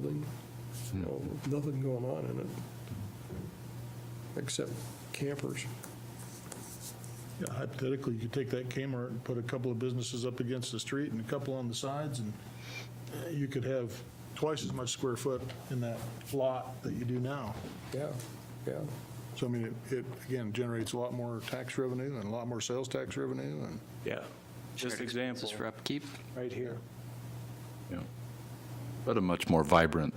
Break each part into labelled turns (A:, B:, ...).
A: building, so nothing going on in it, except campers.
B: Yeah, Hypothetically, you could take that Kmart and put a couple of businesses up against the street and a couple on the sides, and uh, you could have twice as much square foot in that lot that you do now.
A: Yeah, yeah.
B: So I mean, it- it, again, generates a lot more tax revenue and a lot more sales tax revenue and.
C: Yeah. Just
D: Shared
C: example,
D: expenses For upkeep,
B: Right here.
E: Yeah. But a much more vibrant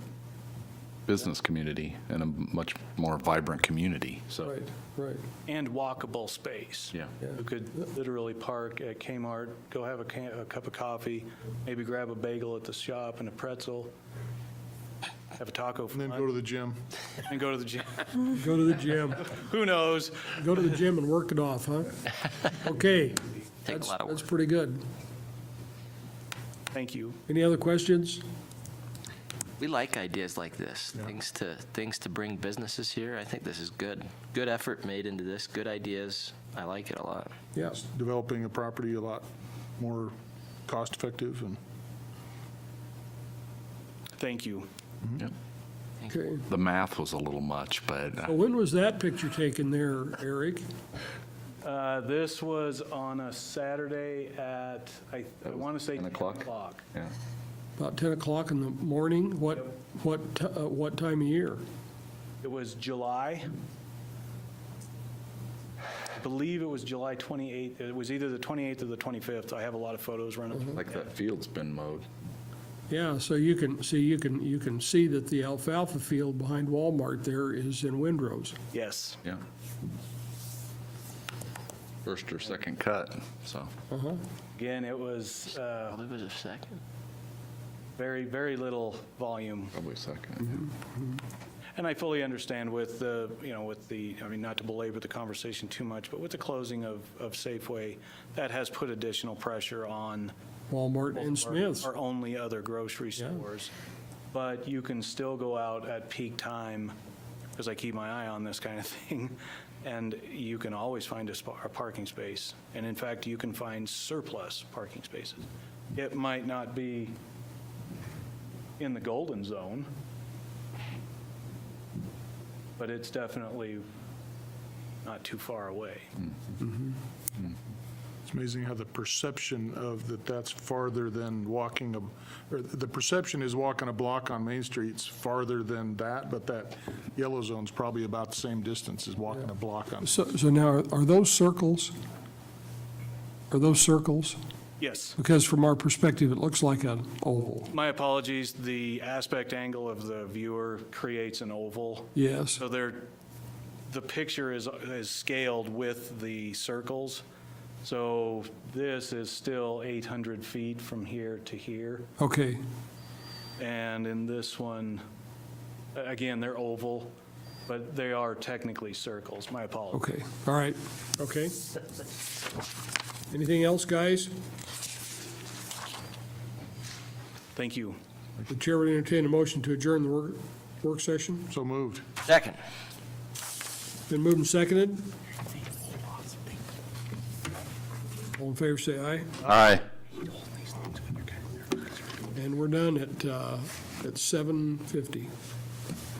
E: business community and a much more vibrant community, so.
A: Right, right.
C: and walkable space.
E: Yeah.
A: Yeah.
C: You could literally park at Kmart, go have a ca- a cup of coffee, maybe grab a bagel at the shop and a pretzel, have a taco for
B: And then go to
C: lunch,
B: the gym.
C: and go to the gym.
F: Go to the gym.
C: Who knows?
F: Go to the gym and work it off, huh? Okay,
D: take a lot of
F: that's
D: work.
F: pretty good.
C: Thank you.
F: Any other questions?
D: We like ideas like this, things to, things to bring businesses here. I think this is good. Good effort made into this, good ideas. I like it a lot.
A: Yes.
B: Developing a property a lot more cost-effective and.
C: Thank you.
A: Okay.
E: The math was a little much, but uh,
F: Well, When was that picture taken there, Eric?
C: Uh, This was on a Saturday at, I
E: That was
C: want to say
E: 10
C: 10
E: o'clock?
C: o'clock.
E: yeah.
F: About 10 o'clock in the morning? What, what, ti- uh, what time of year?
C: It was July. I believe it was July 28th. It was either the 28th or the 25th. I have a lot of photos running. through
E: Like
C: my head.
E: that field's been mowed.
F: Yeah, so you can, see, you can, you can see that the alfalfa field behind Walmart there is in Windrose.
C: Yes.
E: Yeah. First or second cut, so.
F: Uh-huh.
C: Again, it was uh,
D: Well, it was a second.
C: very, very little volume.
E: Probably second.
C: And I fully understand with the, you know, with the, I mean, not to belabor the conversation too much, but with the closing of, of Safeway, that has put additional pressure on
F: Walmart and
C: our-
F: Smith's.
C: Our only other grocery
F: Yeah.
C: stores. But you can still go out at peak time, because I keep my eye on this kind of thing, and you can always find a spa- a parking space. And in fact, you can find surplus parking spaces. It might not be in the golden zone, but it's definitely not too far away.
B: It's amazing how the perception of that that's farther than walking, a- or the perception is walking a block on Main Street's farther than that, but that yellow zone's probably about the same distance as walking a block on.
A: So, so now, are those circles?
F: Are those circles?
C: Yes.
F: Because from our perspective, it looks like an oval.
C: My apologies, the aspect angle of the viewer creates an oval.
F: Yes,
C: So there, the picture is, is scaled with the circles. So this is still 800 feet from here to here.
F: okay.
C: And in this one, a- again, they're oval, but they are technically circles. My apologies.
F: Okay, all right, okay. Anything else, guys?
C: Thank you.
F: The chair would entertain a motion to adjourn the work, work session.
B: So moved.
D: Second.
F: Been moved and seconded. All in favor, say aye.
E: Aye.
F: And we're done at, uh, at 7:50.